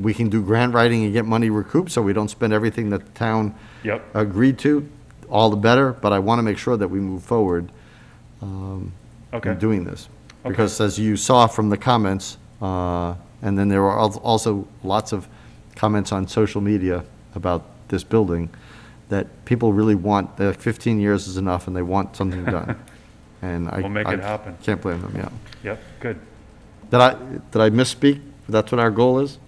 we can do grant writing and get money recouped, so we don't spend everything that the town Yep. agreed to, all the better, but I want to make sure that we move forward Okay. in doing this. Okay. Because as you saw from the comments, uh, and then there were al- also lots of comments on social media about this building, that people really want, they're like 15 years is enough, and they want something done. And I. We'll make I it happen. Can't blame them, yeah. Yep, good. Did I, did I misspeak? That's what our goal is?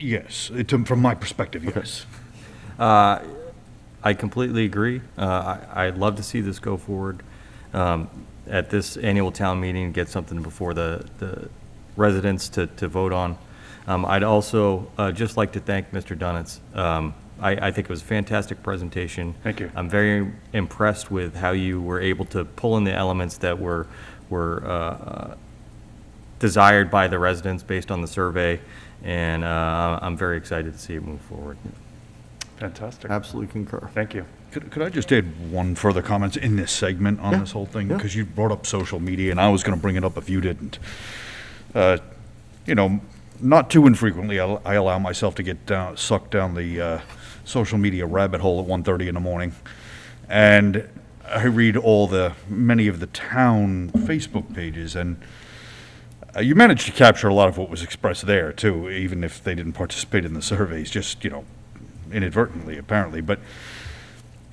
Yes, it- um, from my perspective, yes. Uh, I completely agree. Uh, I- I'd love to see this go forward um, at this annual town meeting, get something before the the residents to to vote on. Um, I'd also uh, just like to thank Mr. Dunitz. Um, I I think it was a fantastic presentation. Thank you. I'm very impressed with how you were able to pull in the elements that were were uh, desired by the residents based on the survey, and uh, I'm very excited to see it move forward. Fantastic. Absolutely concur. Thank you. Could, could I just add one further comment in this segment on Yeah, this whole thing? yeah. Because you brought up social media, and I was going to bring it up if you didn't. Uh, you know, not too infrequently, I, I allow myself to get down, sucked down the uh, social media rabbit hole at 1.30 in the morning, and I read all the many of the town Facebook pages, and uh, you managed to capture a lot of what was expressed there too, even if they didn't participate in the surveys, just you know, inadvertently apparently, but.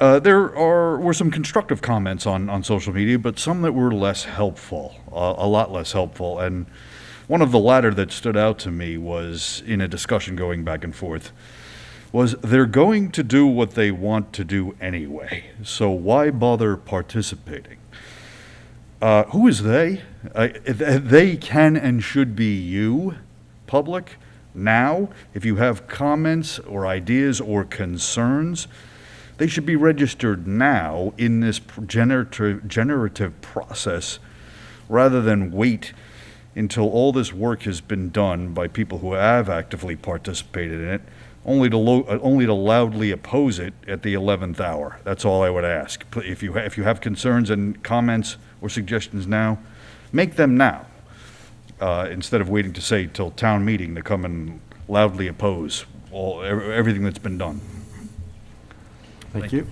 Uh, there are were some constructive comments on, on social media, but some that were less helpful, uh, a lot less helpful. And one of the latter that stood out to me was in a discussion going back and forth was they're going to do what they want to do anyway, so why bother participating? Uh, who is they? Uh, th- they can and should be you, public. Now, if you have comments or ideas or concerns, they should be registered now in this pr- generative, generative process rather than wait until all this work has been done by people who have actively participated in it, only to, lo- uh, only to loudly oppose it at the 11th hour. That's all I would ask. Pl- If you, ha- if you have concerns and comments or suggestions now, make them now uh, instead of waiting to say till town meeting to come and loudly oppose all, ev- everything that's been done. Thank you.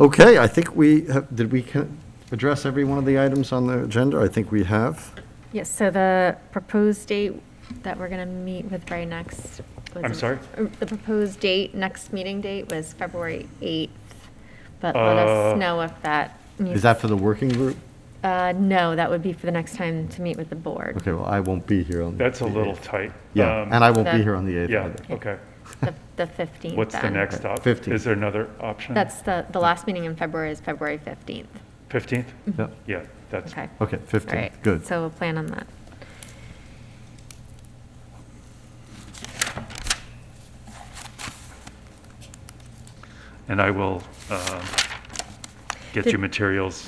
Okay, I think we, have- did we ca- address every one of the items on the agenda? I think we have. Yes, so the proposed date that we're going to meet with Ray next. was- I'm sorry? Uh, The proposed date, next meeting date was February 8th, but let us Uh, know if that. Is that for the working group? Uh, no, that would be for the next time to meet with the board. Okay, well, I won't be here on. That's a the little eighth. tight. Yeah, Um, and I won't be That- here on the 8th Yeah, either. okay. The the 15th. What's the then. next up? 15th. Is there another option? That's the, the last meeting in February is February 15th. 15th? Yeah. Yeah, that's, Okay. Okay, All right. 15th, good. So we'll plan on that. and I will um, get Did- you materials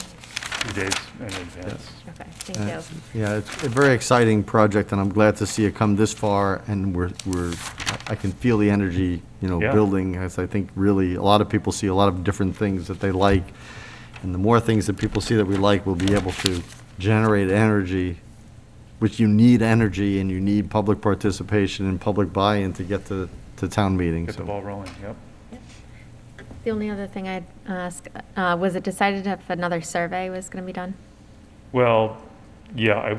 two days in advance. Okay, thank Uh, you. Yeah, it's a very exciting project, and I'm glad to see it come this far, and we're, we're, I I can feel the energy, you know, Yeah. building, as I think really, a lot of people see a lot of different things that they like, and the more things that people see that we like, we'll be able to generate energy, which you need energy, and you need public participation and public buy-in to get to, to town meetings. Get the ball rolling, yep. The only other thing I'd ask, uh, was it decided if another survey was going to be done? Well, yeah, I,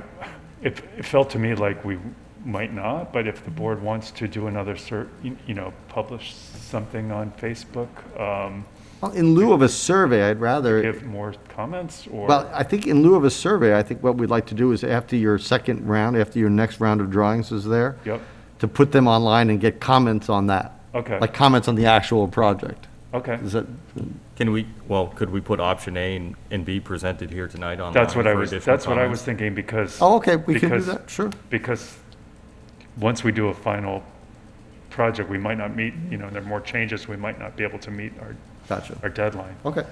it, it felt to me like we might not, but if the board wants to do another cert, you you know, publish something on Facebook, um, Well, In lieu of a survey, I'd rather. give more comments or? Well, I think in lieu of a survey, I think what we'd like to do is after your second round, after your next round of drawings is there. Yep. To put them online and get comments on that. Okay. Like comments on the actual project. Okay, Is that, Can we, well, could we put option A and, and B presented here tonight online? that's what I for was, additional that's what I was comments? thinking because. oh, okay, we can do because- that, sure. Because once we do a final project, we might not meet, you know, there are more changes, we might not be able to meet our, Gotcha. our deadline. Okay,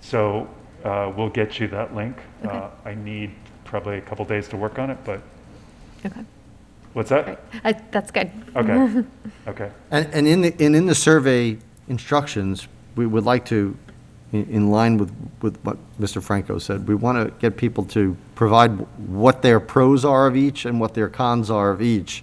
So uh, we'll get you that link. Uh, I need probably a couple days to work on it, but Okay, what's great. that? Uh, That's good. Okay, okay, and, and in the, and in the survey instructions, we would like to in- in line with, with what Mr. Franco said, we want to get people to provide what their pros are of each and what their cons are of each,